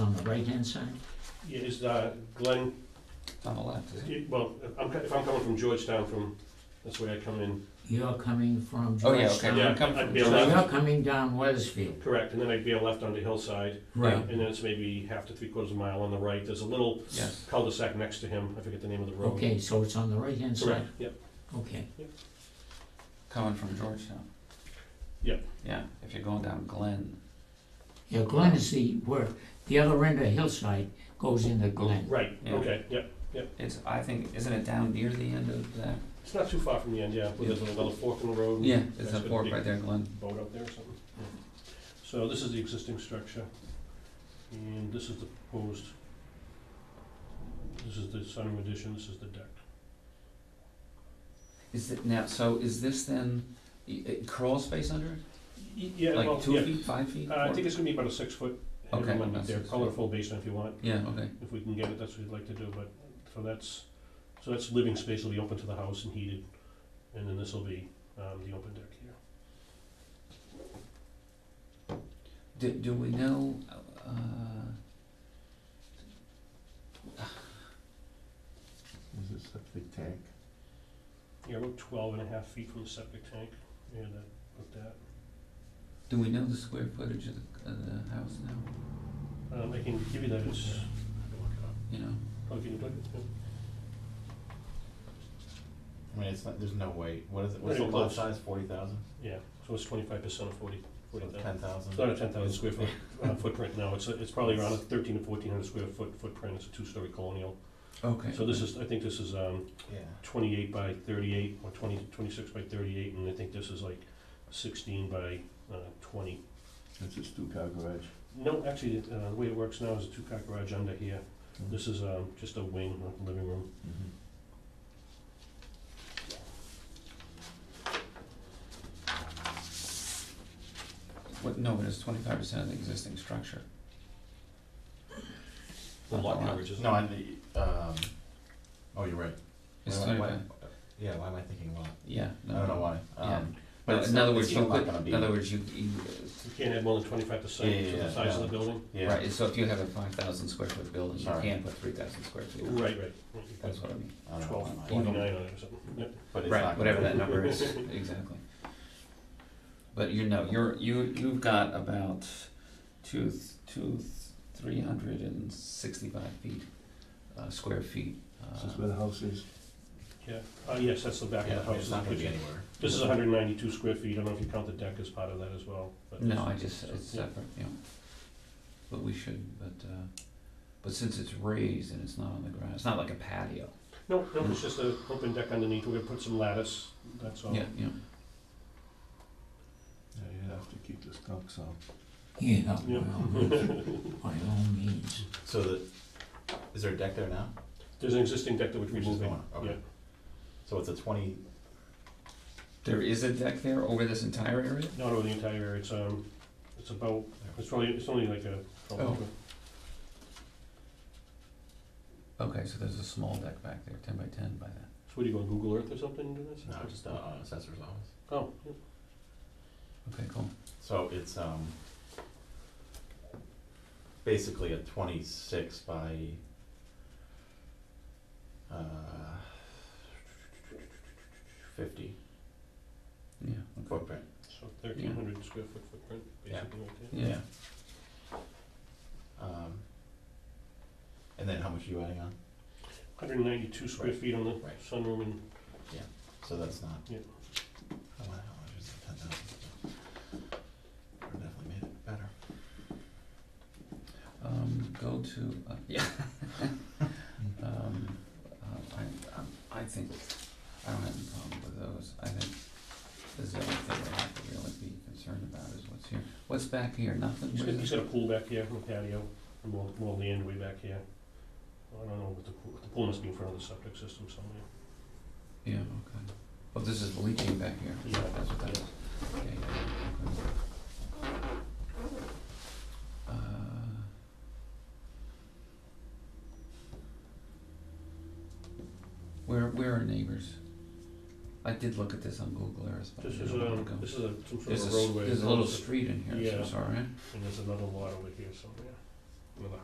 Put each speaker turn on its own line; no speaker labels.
right-hand side?
Is uh, Glen,
It's on the left, isn't it?
it- well, if I'm, co- if I'm coming from Georgetown, from, that's the way I come in,
You're coming from
Oh, yeah,
Georgetown?
okay.
Yeah,
You come from
I'd be
So
allowed.
Georgia.
you're coming down Wesfield?
correct, and then I'd be a left onto Hillside,
Right.
and then it's maybe half to three quarters of a mile on the right, there's a little
Yes.
cul-de-sac next to him, I forget the name of the road.
Okay, so it's on the right-hand
Mm-hmm. Correct,
side?
yep,
Okay,
Coming from Georgetown.
Yeah.
Yeah, if you're going down Glen.
yeah, Glen is the, where, the other end of Hillside goes into Glen.
right,
Yeah.
okay, yep.
It's, I think, isn't it down near the end of that?
It's not too far from the end, yeah, where there's a little fork in the road.
Yeah, it's
That's
a
got
fork
big
right there, Glen.
Boat up there or something. yeah. So this is the existing structure, and this is the proposed. This is the sunroom addition, this is the deck.
Is it now, so is this then, y- uh, crawl space under it?
Y- Yeah, well,
Like two
yeah,
feet, five feet?
Uh, I
four-
think it's gonna be about a six foot
Okay,
headroom, and
that's
they're
six feet.
colorful basement if you want,
Yeah, okay.
if we can get it, that's what we'd like to do, but, so that's, so that's living space will be open to the house and heated, and then this will be, um, the open deck here.
Do, do we know, uh,
Is it septic tank?
Yeah, we're twelve and a half feet from the septic tank, yeah, that, with that.
Do we know the square footage of the, of the house now,
Um, I can give you that as.
you know?
Oh, can you plug it?
I mean, it's not, there's no way, what is it,
Not
what's the
even
lot
close.
size, forty thousand?
Yeah, so it's twenty-five percent of forty, forty thousand.
Ten thousand?
It's not a ten thousand square foot uh, footprint, no, it's, it's probably around a thirteen to fourteen hundred square foot footprint, it's a two-story colonial.
Okay.
So this is, I think this is, um,
Yeah,
twenty-eight by thirty-eight, or 20 26 by thirty-eight, and I think this is like sixteen by, uh, twenty.
it's a two-car garage.
No, actually, uh, the way it works now is a two-car garage under here,
Hmm.
this is, um, just a wing, not a living room.
Mm-hmm.
What, no, but it's twenty-five percent of the existing structure.
The lot coverage is.
No, I, um, oh, you're right.
It's
Why am I-
twenty-five,
why- Yeah, why am I thinking lot?
yeah,
I
no.
don't know why,
Yeah.
um,
No,
but it's,
in other
not- it's
words,
still
you
not
could,
gonna be,
in other words, you, you,
You can't add more than twenty-five percent
Yeah,
to
yeah,
the size of
yeah.
the building?
uh,
yeah,
right, so if you have a five thousand square foot building, you
Sorry.
can put three thousand square feet on it.
Right, right.
That's what I mean,
I don't know
Twelve,
why.
even-
twenty-nine on it or something, Yep.
but it's
right,
not gonna
whatever
be.
that number is, exactly. But you know, you're, you, you've got about two, th- two, three hundred and sixty-five feet, uh, square feet. uh,
the house is.
yeah. Uh, yes, that's the back
Yeah,
of
I
the
mean,
house.
it's not gonna be
This
anywhere.
is hundred and ninety-two square feet, I don't know if you count the deck as part of that as well, but.
No, I just, it's
Yeah.
separate, yeah. But we should, but, uh, but since it's raised and it's not on the ground, it's not like a patio.
No, no, it's just an open deck underneath, we're gonna put some lattice, that's all.
Yeah, yeah.
Yeah, you have to keep this talk so.
Yeah, by
Yeah.
all means, by all means.
So the, is there a deck there now?
There's an existing deck that we're
Which is
removing.
gone, okay. So it's a twenty,
There is a deck there over this entire area?
Not over the entire area, it's, um, it's about, it's probably, it's only like a.
Oh. Okay, so there's a small deck back there, ten by ten by that.
So what, do you go on Google Earth or something and do this?
no, just uh, on assessor's office.
Oh, yeah.
Okay, cool.
So it's, um, basically a twenty-six by, uh, fifty
Yeah, okay.
footprint.
so thirteen hundred square foot footprint,
Yeah.
basically, right there.
Yeah,
Um, and then how much are you adding on?
Hundred and ninety-two square
Right.
feet on the
Right.
sunroom and
So that's not.
Yeah.
Oh, wow, how much is it, ten thousand? Definitely made it better.
um, go to, uh, yeah. Um, uh, I, I, I think, I don't have any problem with those, I think the only thing I have to really be concerned about is what's here. What's back here, nothing?
He's got,
Where's
he's
it?
got a pool back here, a patio, and more, more land way back here. I don't know, but the pool, the pool must be in front of the septic system somewhere.
Yeah, okay. Oh, this is leaking back here.
Yeah.
That's what that is. Yeah, yeah, yeah, okay. Uh, Where, where are neighbors? I did look at this on Google Earth, but I
This is
don't know where to
a,
go.
this is a, some sort
There's a,
of
s-
roadway.
there's a little street in here, so
Yeah.
sorry.
And there's another lot over here somewhere, another